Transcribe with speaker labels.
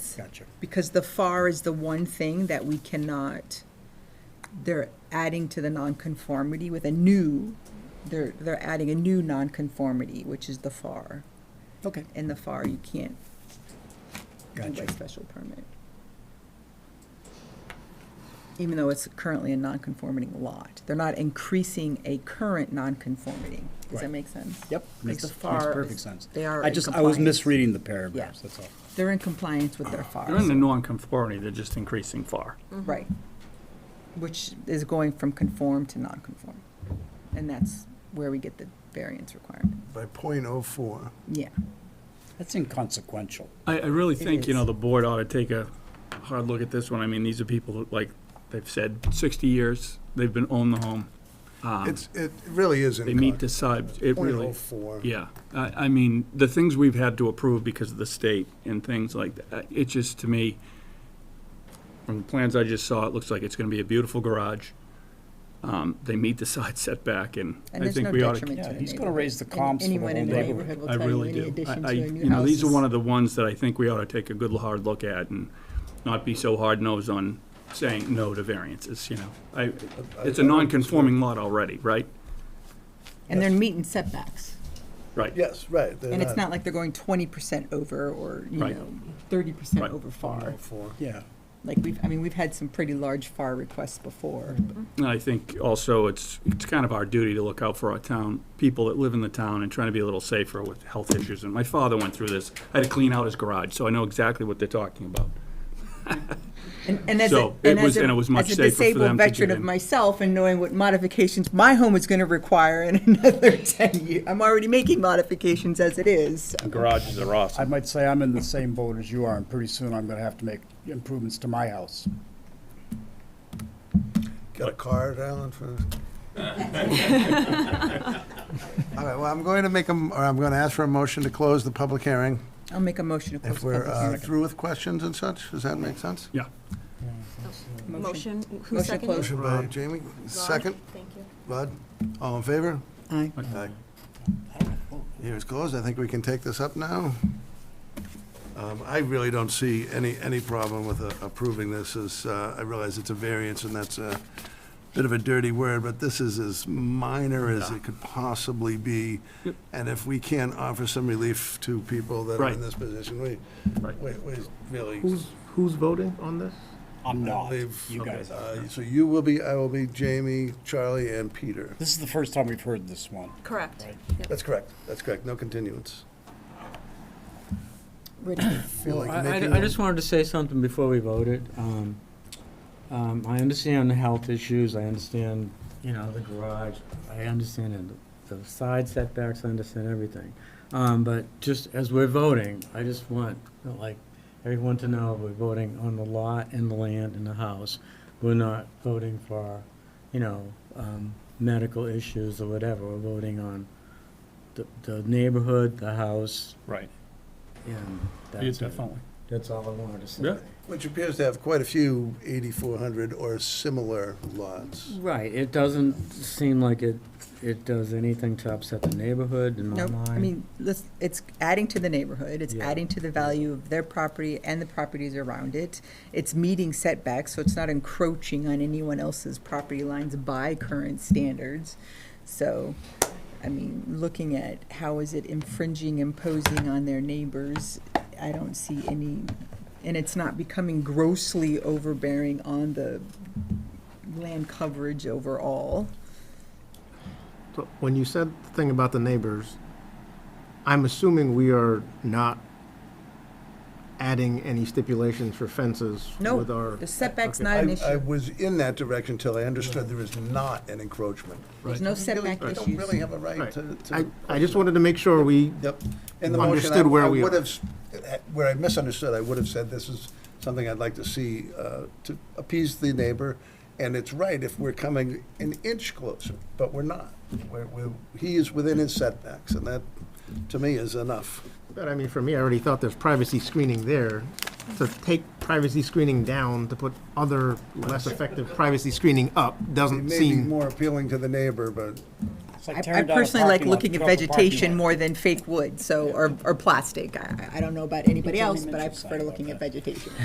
Speaker 1: is.
Speaker 2: Gotcha.
Speaker 1: Because the FAR is the one thing that we cannot, they're adding to the nonconformity with a new, they're, they're adding a new nonconformity, which is the FAR.
Speaker 2: Okay.
Speaker 1: And the FAR, you can't do by
Speaker 2: Gotcha.
Speaker 1: special permit. Even though it's currently a nonconforming lot. They're not increasing a current nonconformity. Does that
Speaker 2: Right.
Speaker 1: make sense?
Speaker 2: Yep, makes,
Speaker 1: the
Speaker 2: makes
Speaker 1: FAR
Speaker 2: perfect
Speaker 1: is-
Speaker 2: sense.
Speaker 1: they are
Speaker 2: I
Speaker 1: in
Speaker 2: just, I was
Speaker 1: compliance.
Speaker 2: misreading the paragraphs, that's all.
Speaker 1: They're in compliance with their FAR.
Speaker 3: They're in the non-conformity, they're just increasing far.
Speaker 1: Right. Which is going from conform to non-conform. And that's where we get the variance requirement.
Speaker 4: by point oh four.
Speaker 1: Yeah.
Speaker 2: That's inconsequential.
Speaker 3: I, I really think, you know,
Speaker 1: is.
Speaker 3: the board ought to take a hard look at this one. I mean, these are people that, like, they've said sixty years, they've been owned the home. Um,
Speaker 4: It's, it really is in.
Speaker 3: They meet the side, it
Speaker 4: Point
Speaker 3: really.
Speaker 4: oh four.
Speaker 3: Yeah, I, I mean, the things we've had to approve because of the state and things like that, uh, it just, to me, from the plans I just saw, it looks like it's gonna be a beautiful garage. Um, they meet the side setback, and
Speaker 1: And
Speaker 3: I
Speaker 1: there's
Speaker 3: think
Speaker 1: no
Speaker 3: we ought
Speaker 1: detriment
Speaker 3: to.
Speaker 1: to the
Speaker 2: yeah,
Speaker 1: neighborhood.
Speaker 2: he's gonna raise the
Speaker 1: Any-
Speaker 2: comps for the whole
Speaker 1: Anyone in the
Speaker 2: neighborhood.
Speaker 1: neighborhood will
Speaker 3: I
Speaker 1: tell you,
Speaker 3: really
Speaker 1: in
Speaker 3: do.
Speaker 1: addition to
Speaker 3: I, I-
Speaker 1: a new house.
Speaker 3: you know, these are
Speaker 1: is-
Speaker 3: one of the ones that I think we ought to take a good, hard look at and not be so hard-nosed on saying no to variances, you know? I, it's a non-conforming lot already, right?
Speaker 1: And they're meeting setbacks.
Speaker 3: Right.
Speaker 4: Yes, right. they're
Speaker 1: And it's not like they're going twenty percent over or, you
Speaker 3: Uh, Right.
Speaker 1: know, thirty percent
Speaker 3: Right.
Speaker 1: over
Speaker 4: Point
Speaker 1: FAR.
Speaker 4: oh four.
Speaker 2: Yeah.
Speaker 1: Like, we've, I mean, we've had some pretty large FAR requests before.
Speaker 3: And I think also it's, it's kind of our duty to look out for our town, people that live in the town and trying to be a little safer with health issues. And my father went through this. I had to clean out his garage, so I know exactly what they're talking about.
Speaker 1: And, and as
Speaker 3: So,
Speaker 1: a,
Speaker 3: it
Speaker 1: and as
Speaker 3: was-
Speaker 1: a,
Speaker 3: and it was much
Speaker 1: as a
Speaker 3: safer for
Speaker 1: disabled
Speaker 3: them to
Speaker 1: veteran
Speaker 3: get
Speaker 1: of
Speaker 3: in.
Speaker 1: myself and knowing what modifications my home is going to require in another 10 years, I'm already making modifications as it is.
Speaker 3: Garages are
Speaker 2: I
Speaker 3: awesome.
Speaker 2: might say I'm in the same boat as you are, and pretty soon I'm gonna have to make improvements to my house.
Speaker 4: Got a card, Alan, for? All right, well, I'm going to make a, m- or I'm going to ask for a motion to close the public hearing.
Speaker 1: I'll make a motion to close
Speaker 4: If
Speaker 1: the
Speaker 4: we're
Speaker 1: public
Speaker 4: uh,
Speaker 1: hearing.
Speaker 4: through with questions and such, does that make sense?
Speaker 3: Yeah.
Speaker 5: Motion, who
Speaker 1: Motion closed.
Speaker 5: seconded?
Speaker 4: Motion by Jamie, Um, second,
Speaker 5: Thank you.
Speaker 4: Bud, all in favor?
Speaker 1: Aye.
Speaker 4: Aye. Here's closed, I think we can take this up now. Um, I really don't see any, any problem with uh, approving this, as, uh, I realize it's a variance, and that's a bit of a dirty word, but this is as minor as it could possibly be, and if we can offer some relief to people that are
Speaker 3: Right.
Speaker 4: in this position, we,
Speaker 3: Right.
Speaker 4: we, we really.
Speaker 6: Who's, who's voting on this?
Speaker 2: I'm not.
Speaker 4: They've-
Speaker 2: You guys are.
Speaker 4: Uh, So you will be, I will be, Jamie, Charlie, and Peter.
Speaker 2: This is the first time we've heard this one.
Speaker 5: Correct. Yep.
Speaker 4: That's correct, that's correct, no continuance.
Speaker 1: Ready.
Speaker 4: Feel like
Speaker 6: I,
Speaker 4: making
Speaker 6: I- I
Speaker 4: a-
Speaker 6: just wanted to say something before we voted. Um, um, I understand the health issues, I understand, you know, the garage, I understand the, the side setbacks, I understand everything. Um, but just as we're voting, I just want, like, everyone to know we're voting on the lot and the land and the house. We're not voting for, you know, um, medical issues or whatever, we're voting on the, the neighborhood, the house,
Speaker 3: Right.
Speaker 6: and that's
Speaker 3: Yeah,
Speaker 6: it.
Speaker 3: definitely.
Speaker 6: That's all I wanted to say.
Speaker 3: Yeah.
Speaker 4: Which appears to have quite a few 8,400 or similar lots.
Speaker 6: Right, it doesn't seem like it, it does anything to upset the neighborhood in my
Speaker 1: No,
Speaker 6: mind.
Speaker 1: I mean, let's, it's adding to the neighborhood, it's
Speaker 6: Yeah.
Speaker 1: adding to the value of their property and the properties around it. It's meeting setbacks, so it's not encroaching on anyone else's property lines by current standards. So, I mean, looking at how is it infringing, imposing on their neighbors, I don't see any, and it's not becoming grossly overbearing on the land coverage overall.
Speaker 6: So,
Speaker 7: When you said the thing about the neighbors, I'm assuming we are not adding any stipulations for fences
Speaker 1: No,
Speaker 7: with our.
Speaker 1: The setback's
Speaker 7: Okay.
Speaker 1: not an
Speaker 4: I, I
Speaker 1: issue,
Speaker 4: was in that direction till I understood there is not an encroachment.
Speaker 1: there's no setback
Speaker 4: I
Speaker 1: issues.
Speaker 4: don't really have a right
Speaker 7: Right.
Speaker 4: to. to-
Speaker 7: I, I just wanted to make sure we,
Speaker 4: Yep. In the motion, I-
Speaker 7: Understood where we
Speaker 4: I would
Speaker 7: are.
Speaker 4: have, s- eh, where I misunderstood, I would have said this is something I'd like to see uh, to appease the neighbor. And it's right if we're coming an inch closer, but we're not. We're, we're, he is within his setbacks and that, to me, is enough.
Speaker 7: but I mean, for me, I already thought there's privacy screening there. To take privacy screening down, to put other less effective privacy screening up,
Speaker 4: It
Speaker 7: doesn't
Speaker 4: may be
Speaker 7: seem.
Speaker 4: more appealing to the neighbor, but
Speaker 1: I- I personally like looking at vegetation more than fake wood, so, or, or plastic. I, I- I don't know about anybody
Speaker 5: Joni
Speaker 1: else, but I
Speaker 5: Mitchell's
Speaker 1: prefer
Speaker 5: side
Speaker 1: looking at vegetation.